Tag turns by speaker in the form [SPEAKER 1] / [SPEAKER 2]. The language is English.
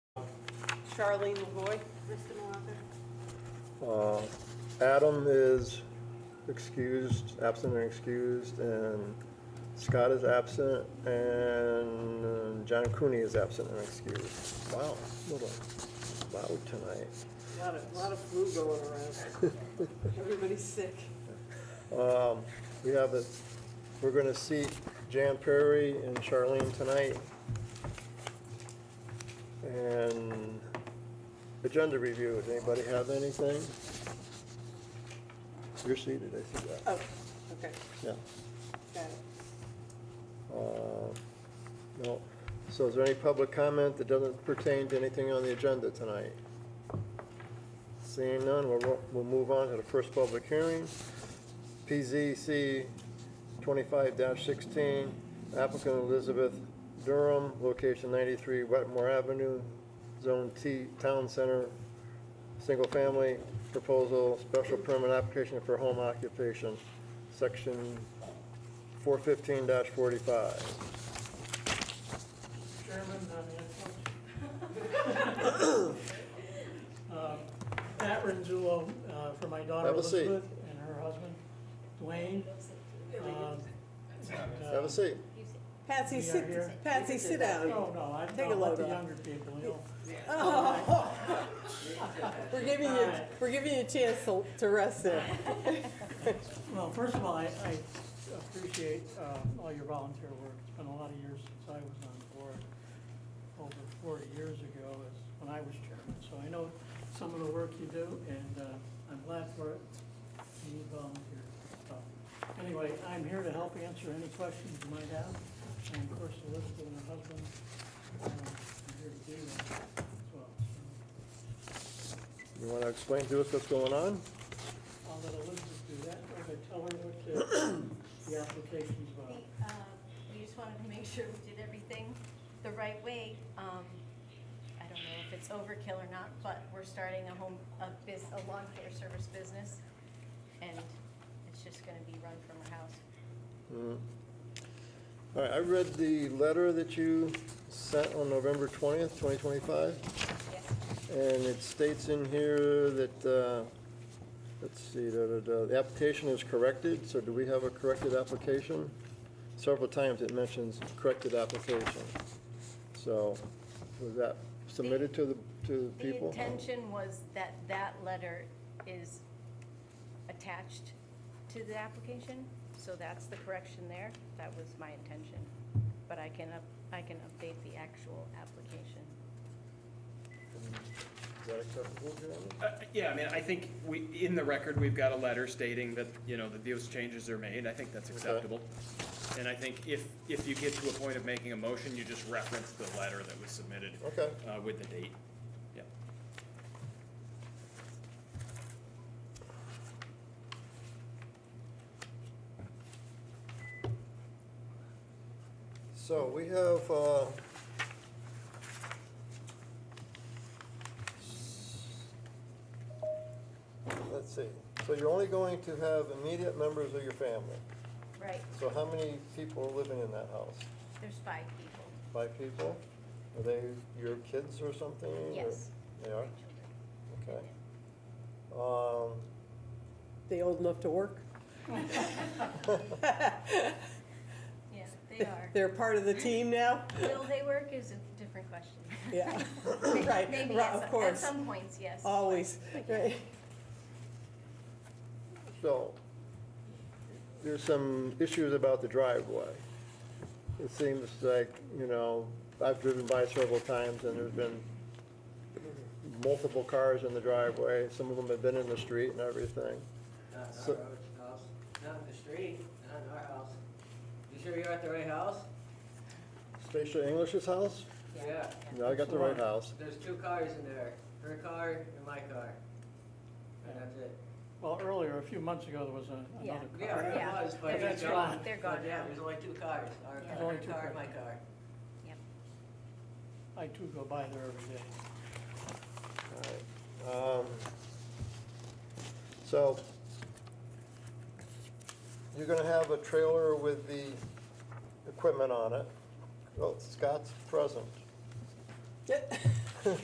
[SPEAKER 1] Charlene LaVoy.
[SPEAKER 2] Mr. Malaka?
[SPEAKER 3] Uh, Adam is excused, absent and excused, and Scott is absent, and uh, John Cooney is absent and excused. Wow, little loud tonight.
[SPEAKER 1] Lot of, lot of flu going around. Everybody's sick.
[SPEAKER 3] Um, We have a, we're going to seat Jan Perry and Charlene tonight. And agenda review, does anybody have anything? You're seated, I see that.
[SPEAKER 1] Oh, okay,
[SPEAKER 3] Yeah.
[SPEAKER 1] got it.
[SPEAKER 3] Uh, No. So is there any public comment that doesn't pertain to anything on the agenda tonight? Seeing none, we'll, we'll move on to the first public hearing. PZC 25-16, applicant Elizabeth Durham, location 93 Wetmore Avenue, Zone T, Town Center, single family proposal, special permit application for home occupation, section 415-45.
[SPEAKER 4] Chairman, I'm Anton. Um, Matt Renzulo, uh, for my daughter
[SPEAKER 3] Have a seat.
[SPEAKER 4] Elizabeth and her husband Dwayne. Um, and, uh,
[SPEAKER 3] Have a seat.
[SPEAKER 1] Patsy,
[SPEAKER 4] We are here.
[SPEAKER 1] sit, Patsy, sit down.
[SPEAKER 4] Oh, No, no, I'm
[SPEAKER 1] Take a
[SPEAKER 4] talking about
[SPEAKER 1] load
[SPEAKER 4] the
[SPEAKER 1] off.
[SPEAKER 4] younger people, you know.
[SPEAKER 1] Oh, We're giving you, we're giving you a chance to, to rest there.
[SPEAKER 4] Well, first of all, I, I appreciate, uh, all your volunteer work. It's been a lot of years since I was on the board, over forty years ago is when I was chairman. So I know some of the work you do and, uh, I'm glad for it. You need volunteers. So, Anyway, I'm here to help answer any questions you might have. And of course, Elizabeth and her husband, uh, are here to do that as well. So
[SPEAKER 3] You want to explain to us what's going on?
[SPEAKER 4] I'll let Elizabeth do that. I'm gonna tell her what the, the application's about.
[SPEAKER 5] The, um, We just wanted to make sure we did everything the right way. Um, I don't know if it's overkill or not, but we're starting a home, a bus, a lawn care service business, and it's just gonna be run from our house.
[SPEAKER 3] Mm. All right, I read the letter that you sent on November 20th, 2025,
[SPEAKER 5] Yes,
[SPEAKER 3] and it states in here that, uh, let's see, da, da, da, the application is corrected, so do we have a corrected application? Several times it mentions corrected application. So was that submitted to the, to the
[SPEAKER 5] The
[SPEAKER 3] people?
[SPEAKER 5] intention was that that letter is attached to the application, so that's the correction there. That was my intention. But I can, up- I can update the actual application.
[SPEAKER 3] Is that acceptable to you?
[SPEAKER 6] Uh, Yeah, I mean, I think we, in the record, we've got a letter stating that, you know, that those changes are made. I think that's acceptable. And I think if, if you get to a point of making a motion, you just reference the letter that was submitted
[SPEAKER 3] Okay.
[SPEAKER 6] uh, with the date. Yeah.
[SPEAKER 3] So we have, uh, let's see, so you're only going to have immediate members of your family.
[SPEAKER 5] Right.
[SPEAKER 3] So how many people are living in that house?
[SPEAKER 5] There's five people.
[SPEAKER 3] Five people? Are they your kids or something? or-
[SPEAKER 5] Yes.
[SPEAKER 3] They are? Okay. Um,
[SPEAKER 1] They old enough to work?
[SPEAKER 5] Yeah, they are.
[SPEAKER 1] They're part of the team now?
[SPEAKER 5] Will they work is a different question.
[SPEAKER 1] Yeah,
[SPEAKER 5] May-
[SPEAKER 1] right,
[SPEAKER 5] Maybe,
[SPEAKER 1] right, of
[SPEAKER 5] at some- at
[SPEAKER 1] course,
[SPEAKER 5] some points, yes.
[SPEAKER 1] always, right.
[SPEAKER 3] So, there's some issues about the driveway. It seems like, you know, I've driven by several times and there's been multiple cars in the driveway. Some of them have been in the street and everything.
[SPEAKER 7] Not in
[SPEAKER 3] So-
[SPEAKER 7] our road, house, not in the street, not in our house. You sure you're at the right house?
[SPEAKER 3] Stacia English's house?
[SPEAKER 7] Yeah,
[SPEAKER 3] No, I got the right house.
[SPEAKER 7] there's two cars in there, her car and my car. And that's it.
[SPEAKER 4] Well, earlier, a few months ago, there was a-
[SPEAKER 5] Yeah.
[SPEAKER 4] another car.
[SPEAKER 7] Yeah,
[SPEAKER 5] Yeah.
[SPEAKER 7] it was, but
[SPEAKER 4] That's
[SPEAKER 7] it's
[SPEAKER 4] gone.
[SPEAKER 7] gone.
[SPEAKER 5] They're gone
[SPEAKER 7] But Yeah,
[SPEAKER 5] now.
[SPEAKER 7] there's only two cars, our
[SPEAKER 5] Yeah.
[SPEAKER 7] car,
[SPEAKER 4] Only
[SPEAKER 7] her
[SPEAKER 4] two
[SPEAKER 7] car
[SPEAKER 4] cars.
[SPEAKER 7] and my car.
[SPEAKER 5] Yep.
[SPEAKER 4] I too go by there every day.
[SPEAKER 3] All right. Um, So, you're gonna have a trailer with the equipment on it. Well, Scott's present.